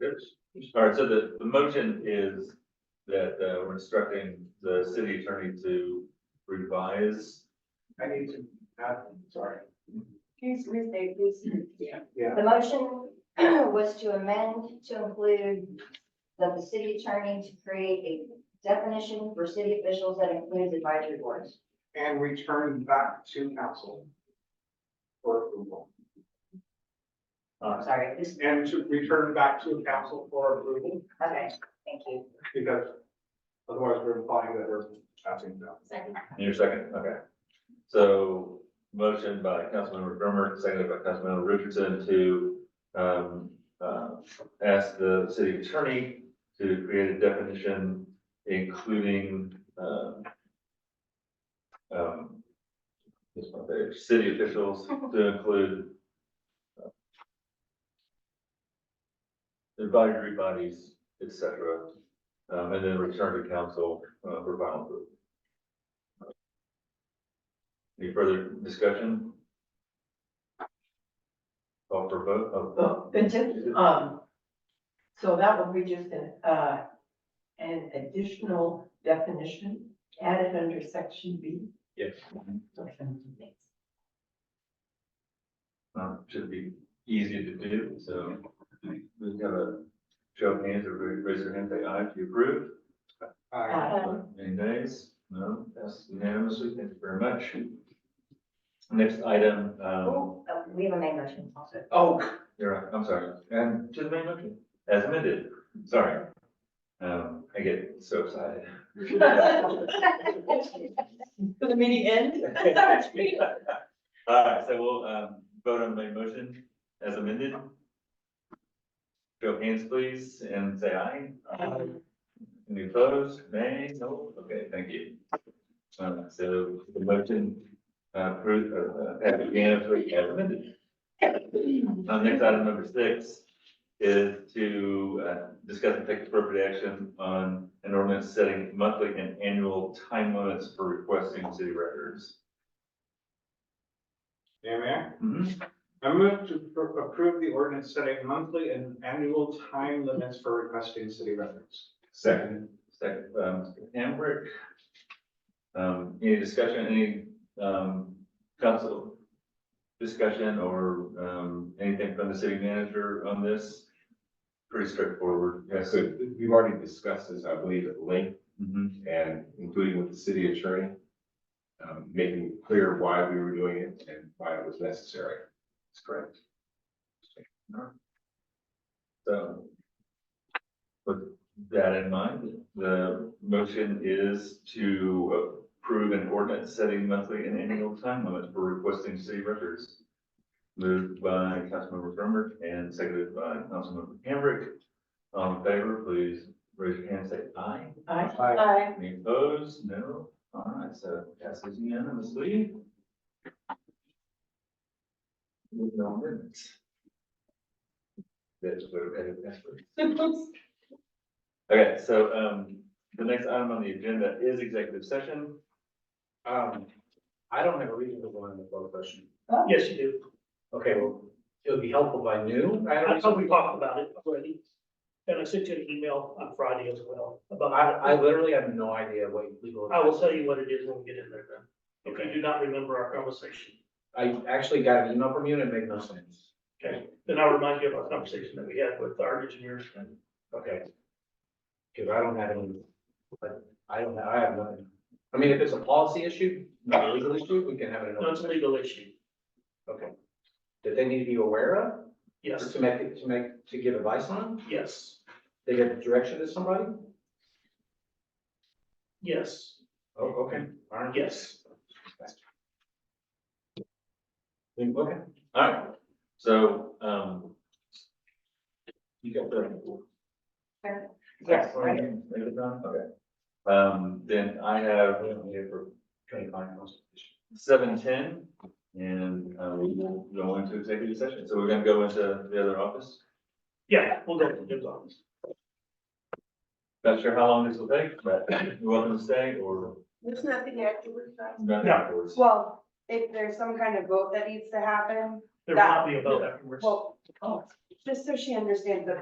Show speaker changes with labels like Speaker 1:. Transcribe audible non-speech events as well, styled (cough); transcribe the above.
Speaker 1: There's,
Speaker 2: All right, so the, the motion is that, uh, we're instructing the city attorney to revise.
Speaker 1: I need to, uh, sorry,
Speaker 3: Please restate, please.
Speaker 1: yeah, yeah,
Speaker 3: The motion (clears throat) was to amend to include that the city attorney to create a definition for city officials that includes advisory boards.
Speaker 1: and return back to council for approval.
Speaker 3: I'm Uh, sorry, this,
Speaker 1: And to return back to council for approval,
Speaker 3: okay, thank you.
Speaker 1: because otherwise we're implying that we're passing down.
Speaker 3: Second.
Speaker 2: Your second, okay. So motion by Councilmember Brummer, seconded by Councilmember Richardson to, um, uh, ask the city attorney to create a definition including, um, um, this one there, city officials to include uh, advisory bodies, et cetera, um, and then return to council, uh, for final approval. Any further discussion? Call for vote, oh,
Speaker 4: Well, then just, um, so that would be just an, uh, an additional definition added under section B. (laughs)
Speaker 2: yes, um, should be easy to do, so. We have a show of hands, everybody raise their hand, say aye if you approve.
Speaker 1: Uh,
Speaker 5: Um,
Speaker 4: Uh,
Speaker 2: Any nays? No, that's unanimously, thank you very much. Next item, um,
Speaker 3: Oh, we have a main motion also.
Speaker 2: oh, you're right, I'm sorry, and to the main motion, as amended, sorry. Um, I get so excited.
Speaker 4: For the meeting end?
Speaker 2: All right, so we'll, um, vote on my motion as amended. Show of hands, please, and say aye. Any opposed? Nay? No? Okay, thank you. Um, so the motion, uh, approved, uh, passed unanimously as amended. Uh, next item number six is to, uh, discuss and take appropriate action on an ordinance setting monthly and annual time limits for requesting city records.
Speaker 1: Yeah, Mayor,
Speaker 2: Mhm.
Speaker 1: I move to pr- approve the ordinance setting monthly and annual time limits for requesting city records.
Speaker 2: Second. Second, um, Hambrick. Um, any discussion, any, um, council discussion or, um, anything from the city manager on this? Pretty straightforward.
Speaker 6: Yeah, so we've already discussed this, I believe, at length
Speaker 2: Mhm.
Speaker 6: and including with the city attorney. Um, making clear why we were doing it and why it was necessary.
Speaker 2: That's correct. So. With that in mind, the motion is to approve an ordinance setting monthly and annual time limits for requesting city records. Moved by Councilmember Brummer and seconded by Councilmember Hambrick. All in favor, please raise your hand, and say aye.
Speaker 4: Aye.
Speaker 1: Aye.
Speaker 4: Aye.
Speaker 2: Any opposed? No? All right, so passes unanimously. Moving on minutes. That's what I added backwards. Okay, so, um, the next item on the agenda is executive session.
Speaker 7: Um, I don't have a reason to go into closed session.
Speaker 4: Oh.
Speaker 7: Yes, you do. Okay, well, it would be helpful if I knew. I
Speaker 8: I
Speaker 7: don't,
Speaker 8: thought we talked about it already, and I sent you an email on Friday as well
Speaker 7: I,
Speaker 8: about.
Speaker 7: I literally have no idea what legal.
Speaker 8: I will tell you what it is when we get in there then, if
Speaker 7: Okay.
Speaker 8: you do not remember our conversation,
Speaker 7: I actually got an email from you and it made no sense.
Speaker 8: okay? Then I'll remind you of our conversation that we had with our engineers and
Speaker 7: Okay. Cause I don't have any, but I don't, I have nothing. I mean, if it's a policy issue, not a legal issue, we can have it. in
Speaker 8: no, it's
Speaker 7: open.
Speaker 8: a legal issue,
Speaker 7: Okay. That they need to be aware of, or
Speaker 8: yes,
Speaker 7: to make, it- to make, to give advice on,
Speaker 8: yes,
Speaker 7: they give direction to somebody?
Speaker 8: yes,
Speaker 7: Oh, okay, all right.
Speaker 8: yes.
Speaker 7: Okay,
Speaker 2: All right, so, um,
Speaker 7: you got the.
Speaker 3: Yes,
Speaker 2: sorry,
Speaker 3: right.
Speaker 2: leave it on? Okay. Um, then I have seven ten, and, uh, we will go into executive session. So we're gonna go into the other office.
Speaker 8: Yeah, we'll go to Jim's office.
Speaker 2: Not sure how long this will take, but you're welcome to stay or
Speaker 5: There's nothing afterwards, right?
Speaker 2: not
Speaker 8: No.
Speaker 2: afterwards.
Speaker 5: (laughs) Well, if there's some kind of vote that needs to happen,
Speaker 8: There will not be a vote afterwards.
Speaker 5: well, just so she understands that